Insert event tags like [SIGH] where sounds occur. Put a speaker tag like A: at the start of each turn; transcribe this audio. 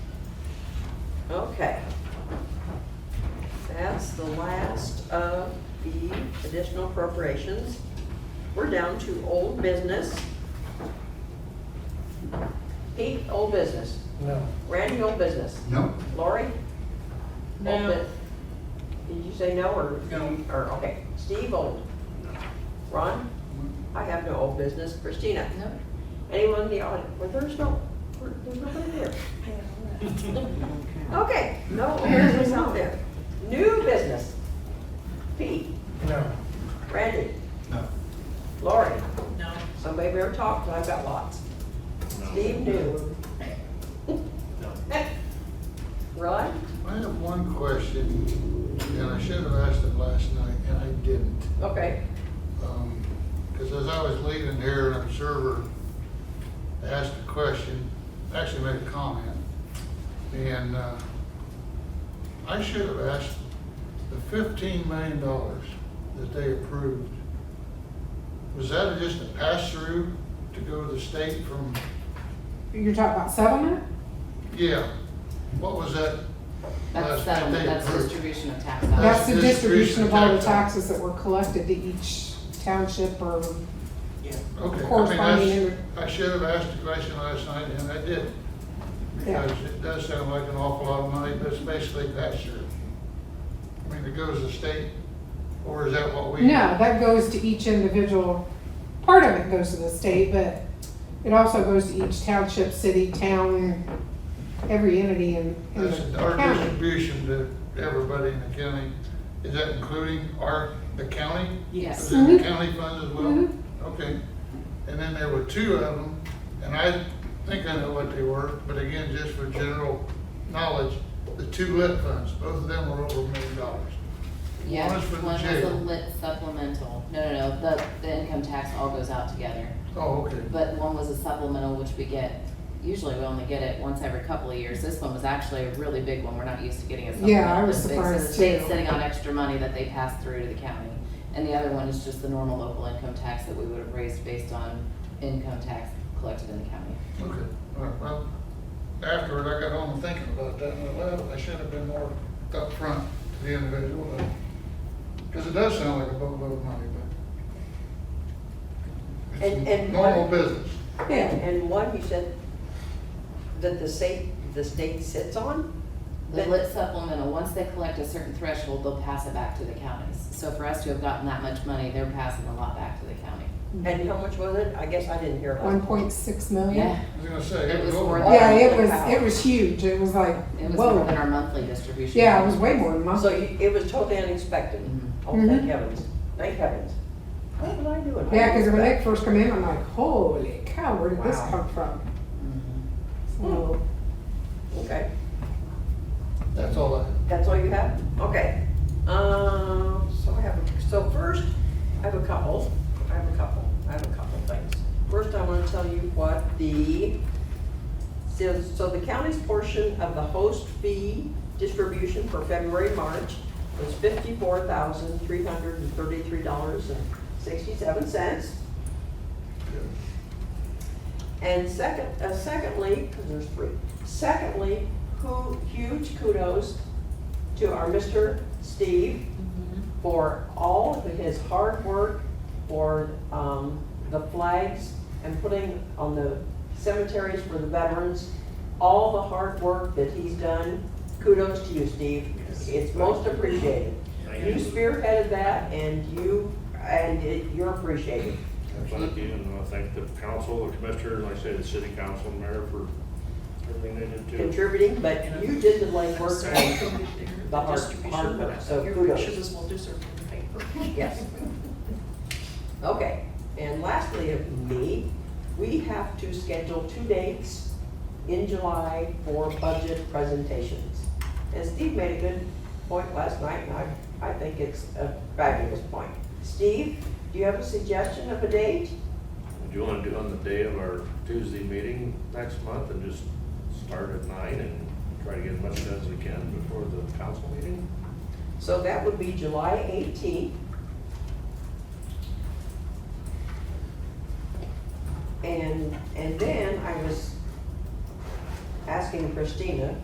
A: Okay. That's the last of the additional appropriations. We're down to old business. Pete, old business.
B: No.
A: Randy, old business.
C: No?
A: Lori? old
D: No.
A: bu- Did you say no or?
C: No.
A: Or, okay. Steve, old. Ron? I have no old business. Christina?
D: No.
A: Anyone in the audience? Well, there's no, there's nobody
D: [LAUGHS]
A: here. Okay, no, here's what's out there. New business. Pete,
B: No.
A: Randy,
C: No.
A: Lori,
D: No.
A: somebody we ever talked to, I've got lots. Steve knew. [LAUGHS] Ron?
E: I have one question, and I should have asked it last night, and I didn't.
A: Okay,
E: Because as I was leaving here, an observer asked a question, actually made a comment, and uh, I should have asked the fifteen million dollars that they approved, was that just a pass-through to go to the state from,
F: You're talking about settlement?
E: yeah, what was that? That's
D: That's settlement,
E: what they
D: that's
E: approved.
D: distribution of tax
F: That's
D: dollars.
F: the
E: Uh, distribution
F: distribution of all the
E: of tax.
F: taxes that were collected to each township or,
E: Okay, I
F: Corresponding
E: mean, that's, I should have asked the question last night, and I did.
F: Yeah.
E: Because it does sound like an awful lot of money, but it's basically pass-through. I mean, it goes to the state, or is that what we?
F: no, that goes to each individual. Part of it goes to the state, but it also goes to each township, city, town, every entity in, in
E: That's
F: the
E: our
F: county.
E: distribution to everybody in the county. Is that including our, the county?
D: Yes.
E: Is it
F: Mhm.
E: the county funds as well?
F: Mhm.
E: Okay. And then there were two of them, and I think I know what they were, but again, just for general knowledge, the two lit funds, both of them were over a million dollars.
D: Yeah,
E: One is for the
D: one was a
E: jail.
D: lit supplemental, no, no, no, the, the income tax all goes out together.
E: Oh, okay.
D: But one was a supplemental, which we get, usually we only get it once every couple of years. This one was actually a really big one, we're not used to getting a supplemental.
F: Yeah, I was
D: this big. So the
F: surprised
D: state's
F: too.
D: sitting on extra money that they pass through to the county. And the other one is just the normal local income tax that we would have raised based on income tax collected in the county.
E: Okay, all right, well, afterward, I got home thinking about that, and I well, I should have been more upfront to the individual, because it does sound like a boatload of money, but
A: And-
E: it's
A: and
E: normal
A: what-
E: business.
F: Yeah,
A: and one you said that the state, the state sits on?
D: The
A: That-
D: lit supplemental, once they collect a certain threshold, they'll pass it back to the counties. So for us to have gotten that much money, they're passing a lot back to the county.
A: And how much was it? I guess I didn't hear.
F: one point six million.
D: Yeah,
E: I was gonna say,
D: It
E: it was
D: was
E: over.
D: more
F: Yeah, it was,
D: Wow.
F: it was huge. It was like,
D: it was more than
F: whoa.
D: our monthly distribution.
F: Yeah, it was way more than
A: So
F: mine.
A: you- it was totally unexpected.
D: Mhm.
A: Oh, thank
F: Mhm.
A: heavens, thank heavens. What did I do? I
F: Yeah, cause
A: didn't
F: when they
A: expect-
F: first come in, I'm like, holy cow, where did this
A: Wow.
F: come from?
D: Mhm.
F: So,
A: Okay.
E: That's all I.
A: That's all you have? Okay. Um, so I have, so first, I have a couple, I have a couple, I have a couple things. First, I wanna tell you what the, so, so the county's portion of the host fee distribution for February, March was fifty-four thousand, three hundred and thirty-three dollars and sixty-seven cents. And second, uh, secondly, because there's three, secondly, who, huge kudos to our Mr. Steve for all of his hard work for, um, the flags and putting on the cemeteries for the veterans, all the hard work that he's done, kudos to you, Steve. It's most appreciated. You spearheaded that and you, and it- you're appreciated.
G: Thank you, and I thank the council, the commissioner, and like I say, the city council, and mayor for everything they did too.
A: contributing, but you did the legwork and the
H: The
A: hard- hard work, so
H: Your
A: kudos.
H: pictures as well deserved in the paper.
A: Yes. Okay, and lastly of me, we have to schedule two dates in July for budget presentations. And Steve made a good point last night, and I, I think it's a fabulous point. Steve, do you have a suggestion of a date?
G: Do you want to do it on the day of our Tuesday meeting next month and just start at nine and try to get as much done as we can before the council meeting?
A: So that would be July eighteenth. And, and then I was asking Christina,